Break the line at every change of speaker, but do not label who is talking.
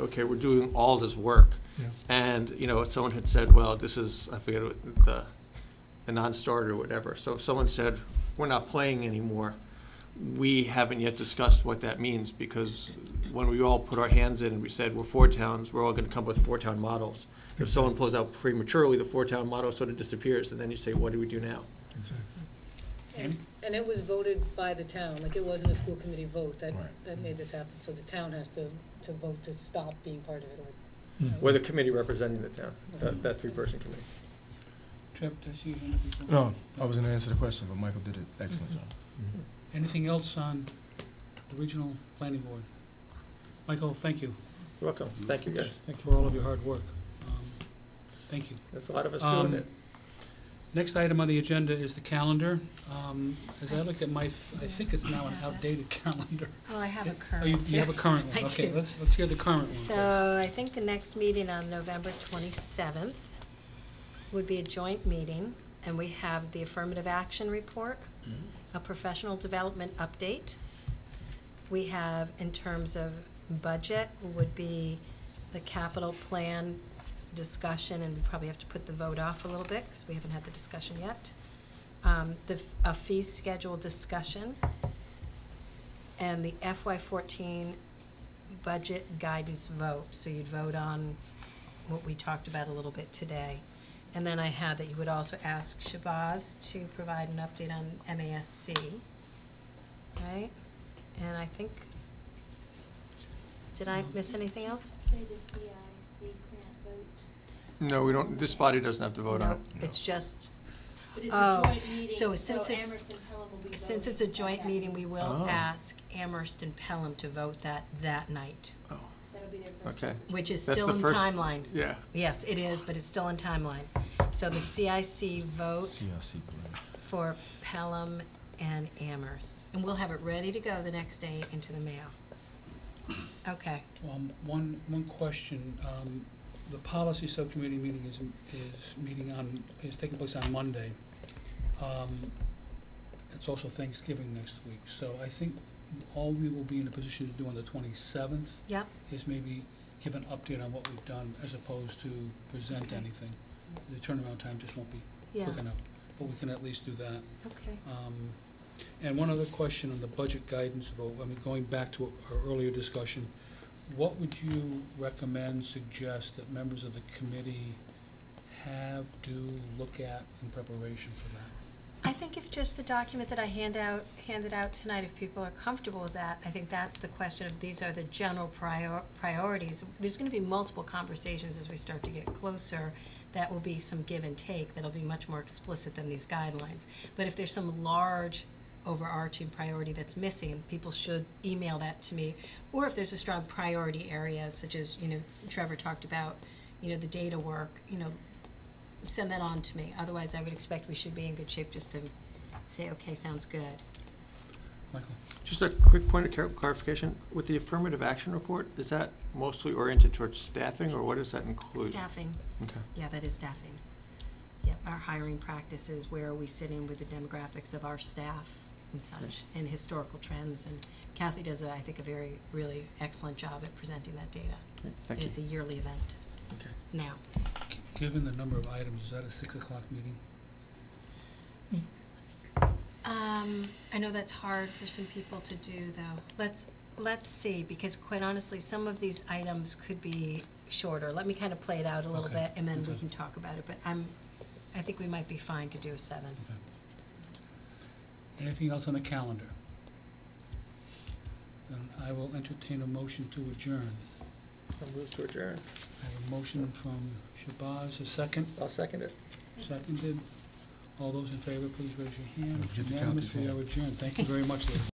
okay, we're doing all this work.
Yeah.
And, you know, someone had said, well, this is, I forget, what the, a non-starter or whatever. So if someone said, we're not playing anymore, we haven't yet discussed what that means, because when we all put our hands in and we said, we're four towns, we're all gonna come up with four-town models. If someone pulls out prematurely, the four-town model sort of disappears, and then you say, what do we do now?
Exactly.
And and it was voted by the town, like it wasn't a school committee vote that,
Right.
that made this happen, so the town has to, to vote to stop being part of it or.
We're the committee representing the town, that, that three-person committee.
Trip, does he want to be? Mm-hmm.
No, I was gonna answer the question, but Michael did an excellent job.
Mm.
Anything else on the regional planning board? Michael, thank you
You're welcome, thank you, guys.
for all of your hard work. Um, Thank you.
There's a lot of us
Um,
doing it.
Next item on the agenda is the calendar. Um, As I look at my, I think it's now an outdated calendar.
Oh, I have a
Oh, you-
current.
You have a current one?
I
Okay,
do.
let's, let's hear the current one. first.
So I think the next meeting on November 27th would be a joint meeting, and we have the affirmative action report,
Mm-hmm.
a professional development update. We have, in terms of budget, would be the capital plan discussion, and we probably have to put the vote off a little bit, because we haven't had the discussion yet. Um, The, f- a fee schedule discussion, and the FY14 budget guidance vote. So you'd vote on what we talked about a little bit today. And then I had that you would also ask Shabazz to provide an update on MASC, right? And I think, did I miss anything else?
For the CIC grant vote.
No, we don't, this body doesn't have to vote on
No,
it.
It's just,
But it's
Oh,
a joint meeting,
so
so
since it's-
Emerson Pelham will be voting.
since it's a
at
joint
that
meeting, we will
Oh.
ask Amherst and Pelham to vote that, that night,
Oh,
That'll be their first.
Okay,
which is
That's
still
the
in
first-
timeline.
yeah.
Yes, it is, but it's still in timeline. So the CIC vote
CRC plan.
for Pelham and Amherst. And we'll have it ready to go the next day into the mail. Okay,
Um, One, one question. Um, The policy subcommittee meeting is, is meeting on, is taking place on Monday. Um, It's also Thanksgiving next week, so I think all we will be in a position to do on the twenty-seventh
yep,
is maybe give an update on what we've done as opposed to present
Okay.
anything. The turnaround time just won't be
yeah,
quick enough, but we can at least do that.
okay.
Um, And one other question on the budget guidance vote, I mean, going back to our earlier discussion, what would you recommend, suggest that members of the committee have, do, look at in preparation for that?
I think if just the document that I hand out, handed out tonight, if people are comfortable with that, I think that's the question of, these are the general prior, priorities. There's gonna be multiple conversations as we start to get closer, that will be some give and take, that'll be much more explicit than these guidelines. But if there's some large overarching priority that's missing, people should email that to me. Or if there's a strong priority area, such as, you know, Trevor talked about, you know, the data work, you know, send that on to me. Otherwise, I would expect we should be in good shape just to say, okay, sounds good.
Michael?
Just a quick point of clar- clarification, with the affirmative action report, is that mostly oriented towards staffing, or what does that include?
Staffing,
Okay.
yeah, that is staffing. Yep, our hiring practices, where are we sitting with the demographics of our staff and such, and historical trends. And Kathy does, I think, a very, really excellent job at presenting that data.
Great,
And
Thank you.
it's a yearly event
Okay.
now.
G- Given the number of items, is that a six o'clock meeting?
Um, I know that's hard for some people to do, though. Let's, let's see, because quite honestly, some of these items could be shorter. Let me kind of play it out a little
Okay,
bit, and then we
okay.
can talk about it, but I'm, I think we might be fine to do a seven.
Anything else on the calendar? Then I will entertain a motion to adjourn.
I'll move to adjourn.
I have a motion from Shabazz, a second.
I'll second it.
Seconded. All those in favor, please raise your hand.
Don't forget to count
Unanimously,
these
I adjourn. Thank you very much, ladies.